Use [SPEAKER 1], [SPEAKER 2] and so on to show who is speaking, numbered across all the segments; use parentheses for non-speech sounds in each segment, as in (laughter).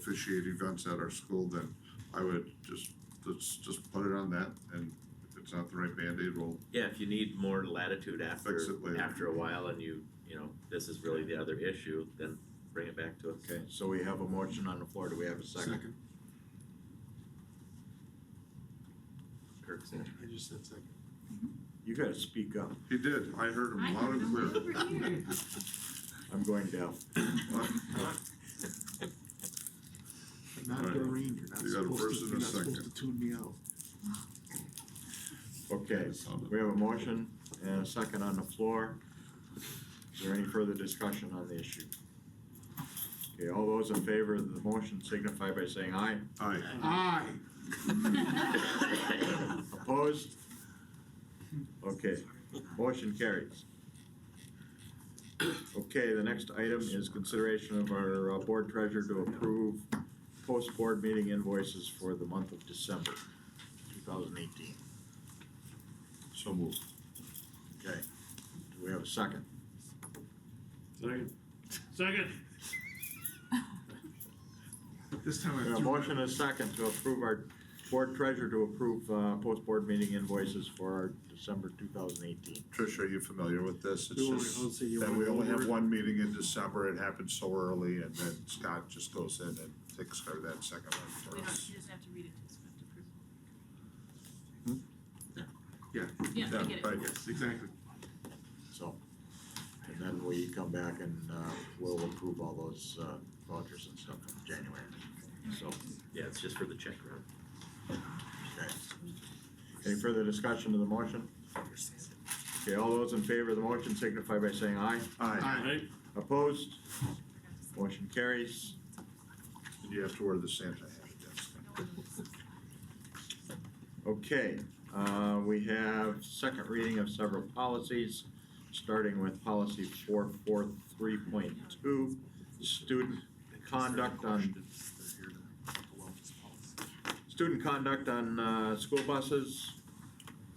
[SPEAKER 1] officiate events at our school, then I would just, let's just put it on that and if it's not the right Band-Aid, we'll
[SPEAKER 2] Yeah, if you need more latitude after,
[SPEAKER 1] Fix it later.
[SPEAKER 2] after a while and you, you know, this is really the other issue, then bring it back to us.
[SPEAKER 3] Okay, so we have a motion on the floor, do we have a second?
[SPEAKER 1] second.
[SPEAKER 2] Kirk Sanders.
[SPEAKER 4] I just said second.
[SPEAKER 3] You gotta speak up,
[SPEAKER 1] He did, I heard
[SPEAKER 5] I
[SPEAKER 1] him loud
[SPEAKER 5] have
[SPEAKER 1] and
[SPEAKER 5] no
[SPEAKER 1] clear. (laughs)
[SPEAKER 5] over here.
[SPEAKER 3] I'm going down.
[SPEAKER 4] (laughs) Not
[SPEAKER 1] Alright.
[SPEAKER 4] Doreen, you're not
[SPEAKER 1] You got a
[SPEAKER 4] supposed
[SPEAKER 1] first
[SPEAKER 4] to,
[SPEAKER 1] and
[SPEAKER 4] you're
[SPEAKER 1] a
[SPEAKER 4] not supposed to
[SPEAKER 1] second.
[SPEAKER 4] tune me out.
[SPEAKER 3] Okay, we have a motion and a second on the floor. Is there any further discussion on the issue? Okay, all those in favor of the motion signify by saying aye.
[SPEAKER 1] Aye,
[SPEAKER 4] Aye.
[SPEAKER 3] Opposed? Okay, motion carries. Okay, the next item is consideration of our uh, board treasurer to approve post-board meeting invoices for the month of December, two thousand eighteen.
[SPEAKER 1] so moved.
[SPEAKER 3] Okay, do we have a second?
[SPEAKER 6] Second. Second.
[SPEAKER 4] This time I
[SPEAKER 3] We
[SPEAKER 4] threw.
[SPEAKER 3] have A motion and a second to approve our board treasurer to approve, uh, post-board meeting invoices for our December two thousand eighteen.
[SPEAKER 1] Trish, are you familiar with this? It's
[SPEAKER 4] We only-
[SPEAKER 1] just
[SPEAKER 4] I'll say you
[SPEAKER 1] that
[SPEAKER 4] wanna
[SPEAKER 1] we
[SPEAKER 4] go
[SPEAKER 1] only
[SPEAKER 4] over
[SPEAKER 1] have
[SPEAKER 4] it?
[SPEAKER 1] one meeting in December, it happens so early, and then Scott just goes in and takes care of that second
[SPEAKER 5] We
[SPEAKER 1] one for
[SPEAKER 5] don't,
[SPEAKER 1] us.
[SPEAKER 5] she doesn't have to read it, she doesn't have to prove
[SPEAKER 4] Yeah,
[SPEAKER 5] it. Yeah, I get it.
[SPEAKER 1] right.
[SPEAKER 4] yes, exactly.
[SPEAKER 3] So, and then we come back and, uh, we'll approve all those, uh, vouchers and stuff in January. So,
[SPEAKER 2] Yeah, it's just for the check run.
[SPEAKER 3] okay. Any further discussion of the motion? Okay, all those in favor of the motion signify by saying aye.
[SPEAKER 1] Aye,
[SPEAKER 4] Aye.
[SPEAKER 6] Aye.
[SPEAKER 3] Opposed?
[SPEAKER 5] I forgot to say.
[SPEAKER 3] Motion carries.
[SPEAKER 1] and you have to wear the Santa hat, that's.
[SPEAKER 5] No one knows.
[SPEAKER 3] Okay, uh, we have second reading of several policies, starting with policy four four three point two, student conduct on, student conduct on, uh, school buses.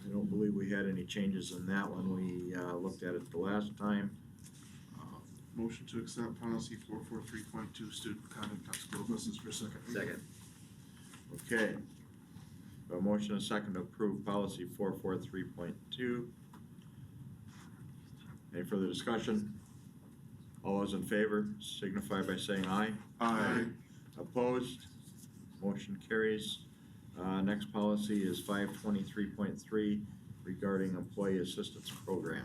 [SPEAKER 3] I don't believe we had any changes in that one, we, uh, looked at it the last time.
[SPEAKER 4] Uh, Motion to accept policy four four three point two, student conduct on school buses for second. reading.
[SPEAKER 2] Second.
[SPEAKER 3] Okay. A motion and a second to approve policy four four three point two. Any further discussion? All those in favor signify by saying aye.
[SPEAKER 1] Aye,
[SPEAKER 3] Opposed? Motion carries. Uh, next policy is five twenty-three point three regarding employee assistance program.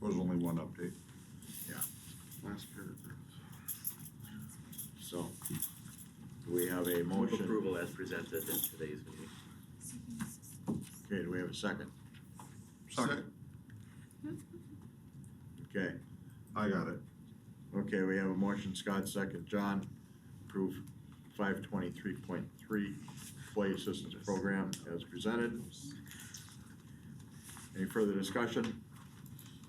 [SPEAKER 1] was only one update.
[SPEAKER 4] Last paragraph.
[SPEAKER 3] So, do we have a
[SPEAKER 2] Move
[SPEAKER 3] motion?
[SPEAKER 2] approval as presented in today's meeting.
[SPEAKER 3] Okay, do we have a second?
[SPEAKER 1] Second,
[SPEAKER 3] Okay,
[SPEAKER 1] I got it.
[SPEAKER 3] okay, we have a motion, Scott, second, John, approve five twenty-three point three employee assistance program as presented. Any further discussion?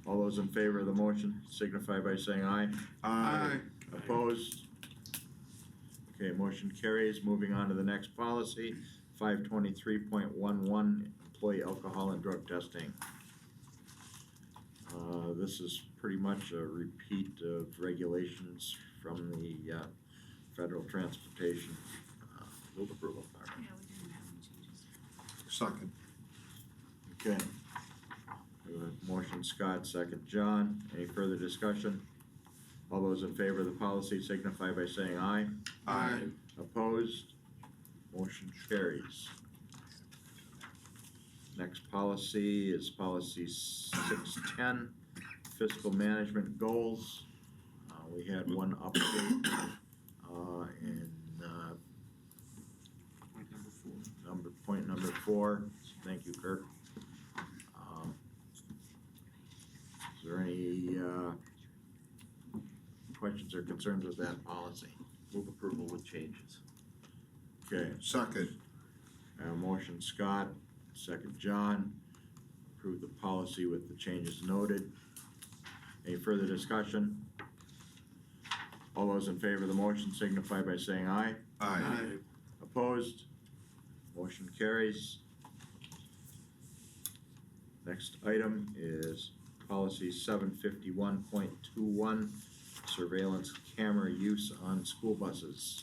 [SPEAKER 3] All those in favor of the motion signify by saying aye.
[SPEAKER 1] Aye,
[SPEAKER 3] Opposed? Okay, motion carries. Moving on to the next policy, five twenty-three point one one, employee alcohol and drug testing. Uh, this is pretty much a repeat of regulations from the, uh, federal transportation. uh, Move approval.
[SPEAKER 5] Yeah, we didn't have any changes.
[SPEAKER 1] second,
[SPEAKER 3] Okay. We have a Motion Scott, second John. Any further discussion? All those in favor of the policy signify by saying aye.
[SPEAKER 1] aye,
[SPEAKER 3] Opposed? Motion carries. Next policy is policy six ten, fiscal management goals. Uh, we had one update, uh, in, uh,
[SPEAKER 4] Point number four.
[SPEAKER 3] number, point number four. Thank you, Kirk. Um, Is there any, uh, questions or concerns with that policy?
[SPEAKER 2] Move approval with changes.
[SPEAKER 3] Okay,
[SPEAKER 1] second,
[SPEAKER 3] I have a motion Scott, second John, approve the policy with the changes noted. Any further discussion? All those in favor of the motion signify by saying aye.
[SPEAKER 1] aye,
[SPEAKER 3] Opposed? Motion carries. Next item is policy seven fifty-one point two one, surveillance camera use on school buses.